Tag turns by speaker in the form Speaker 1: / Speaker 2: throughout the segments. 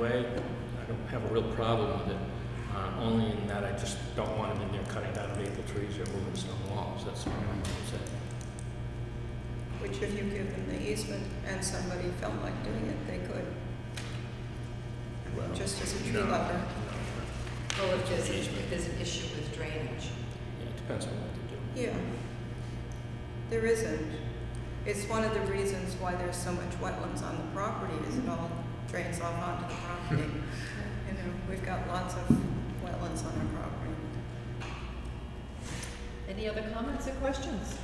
Speaker 1: way, I don't have a real problem with it, uh, only in that I just don't want them in there cutting down maple trees or moving stone walls, that's all I'm saying.
Speaker 2: Which if you give them the easement and somebody felt like doing it, they could, just as a tree lover.
Speaker 3: Well, if there's, if there's an issue with drainage.
Speaker 1: Yeah, it depends on what they do.
Speaker 2: Yeah. There isn't. It's one of the reasons why there's so much wetlands on the property is it all drains off onto the property. You know, we've got lots of wetlands on our property.
Speaker 3: Any other comments or questions?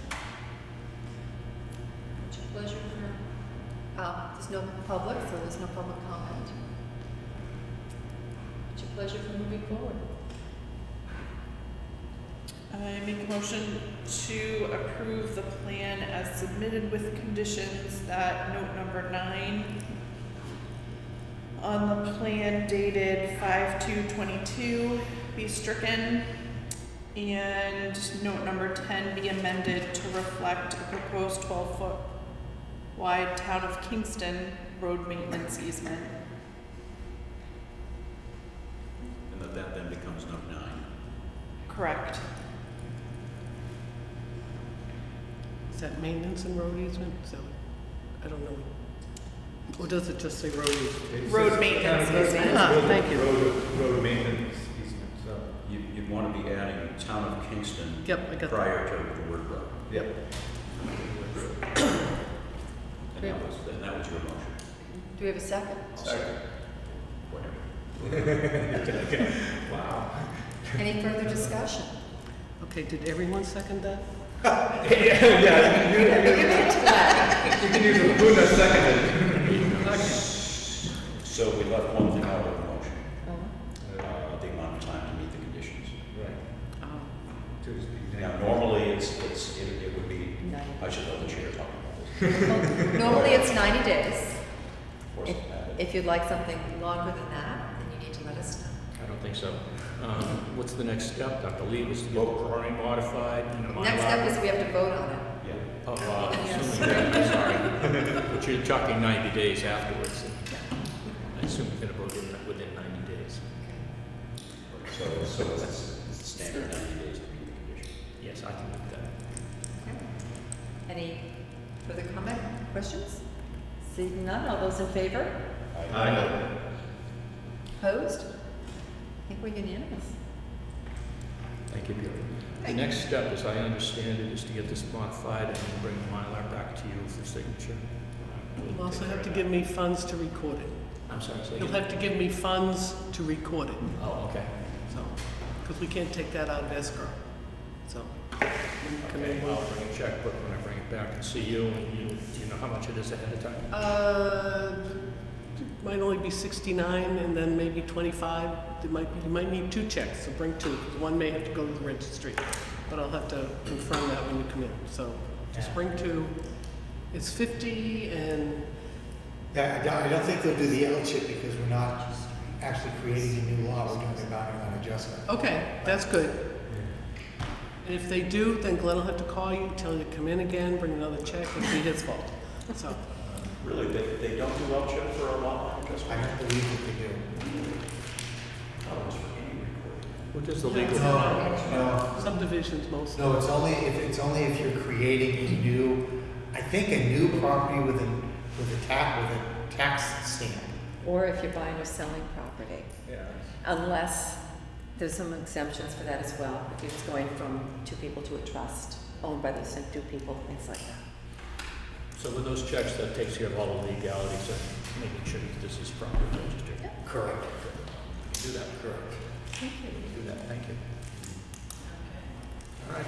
Speaker 3: It's a pleasure for, uh, there's no public, so there's no public comment. It's a pleasure for moving forward.
Speaker 4: I make a motion to approve the plan as submitted with conditions that note number nine on the plan dated five two twenty-two be stricken and note number ten be amended to reflect a proposed twelve-foot wide town of Kingston road maintenance easement.
Speaker 5: And that that then becomes note nine.
Speaker 4: Correct.
Speaker 6: Is that maintenance and road easement? So, I don't know. Or does it just say road easement?
Speaker 4: Road maintenance easement.
Speaker 6: Ah, thank you.
Speaker 7: road maintenance easement, so.
Speaker 5: You, you'd want to be adding town of Kingston
Speaker 6: Yep, I got that.
Speaker 5: prior to the word road.
Speaker 7: Yep.
Speaker 5: And that was, and that was your motion.
Speaker 3: Do we have a second?
Speaker 5: Second. Whatever. Wow.
Speaker 3: Any further discussion?
Speaker 6: Okay, did everyone second that?
Speaker 7: Yeah, you can
Speaker 3: Give it
Speaker 7: use, you
Speaker 3: to Glenn.
Speaker 7: can use a Luna seconded.
Speaker 5: So we left one thing out of the motion, uh, the amount of time to meet the conditions.
Speaker 7: Right.
Speaker 6: Oh,
Speaker 7: Tuesday
Speaker 5: Now,
Speaker 7: night.
Speaker 5: normally, it's, it's, it it would be,
Speaker 3: Ninety.
Speaker 5: I should let the chair talk about this.
Speaker 3: Well, Normally, it's ninety days.
Speaker 5: Of course,
Speaker 3: If,
Speaker 5: uh,
Speaker 3: if you'd like something longer than that, then you need to let us know.
Speaker 1: I don't think so. Um, What's the next step, Dr. Lee, was to get the drawing modified and a Mylar?
Speaker 3: Next step is we have to vote on it.
Speaker 5: Yeah.
Speaker 1: Oh, wow, assuming- sorry. But you're talking 90 days afterwards, and I assume you're going to vote in within 90 days.
Speaker 5: So, so it's it's standard ninety days to meet the condition.
Speaker 1: Yes, I can do that.
Speaker 3: Okay. Any further comment, questions? Seeing none, all those in favor?
Speaker 7: I know.
Speaker 3: Opposed? I think we're unanimous.
Speaker 1: Thank you, Peter. The
Speaker 2: Thank you.
Speaker 1: next step, as I understand it, is to get this modified and then bring the Mylar back to you for signature.
Speaker 6: You'll also have to give me funds to record it.
Speaker 1: I'm sorry, say
Speaker 6: You'll
Speaker 1: again.
Speaker 6: have to give me funds to record it,
Speaker 1: Oh, okay.
Speaker 6: so, because we can't take that out of escrow, so. when you come in,
Speaker 1: Okay, well, I'll bring a checkbook when I bring it back and see you, and you, do you know how much it is ahead of time?
Speaker 6: Uh, might only be 69 and then maybe 25. There might, you might need two checks, so bring two, 'cause one may have to go to the registry. But I'll have to confirm that when you come in, so just bring two. It's 50 and,
Speaker 8: Yeah, I don't, I don't think they'll do the L chip because we're not actually creating a new law, we're doing a boundary line adjustment.
Speaker 6: okay, that's good. And if they do, then Glenn will have to call you, tell you to come in again, bring another check, it'll be his fault. So,
Speaker 5: Really, they, they don't do well chip for a lot line
Speaker 8: I
Speaker 5: adjustment?
Speaker 8: don't believe that they do.
Speaker 5: thought it was for any recording.
Speaker 1: What does the legal?
Speaker 8: No,
Speaker 6: subdivisions mostly.
Speaker 8: no, it's only, if, it's only if you're creating a new, I think a new property with a, with a tax, with a tax stamp.
Speaker 3: Or if you're buying or selling property,
Speaker 7: Yeah.
Speaker 3: unless there's some exemptions for that as well. If it's going from two people to a trust owned by the same two people, things like that.
Speaker 1: So with those checks, that takes care of all the legalities and making sure that this is properly registered.
Speaker 3: Yep.
Speaker 8: Correct.
Speaker 1: Do that, correct.
Speaker 3: Thank you.
Speaker 1: Do that, thank you. All right.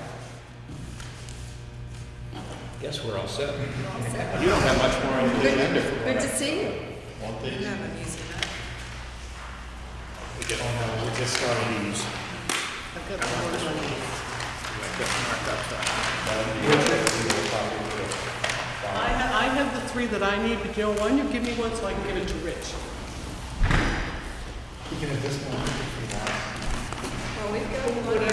Speaker 1: Guess we're all set. You don't have much more on the agenda.
Speaker 3: Good, good to see you.
Speaker 2: You have an easement.
Speaker 6: I've got four on me. I have, I have the three that I need, but you know, one you give me one so I can give it to Rich.
Speaker 8: You can have this one if you want.
Speaker 2: Well, we've got one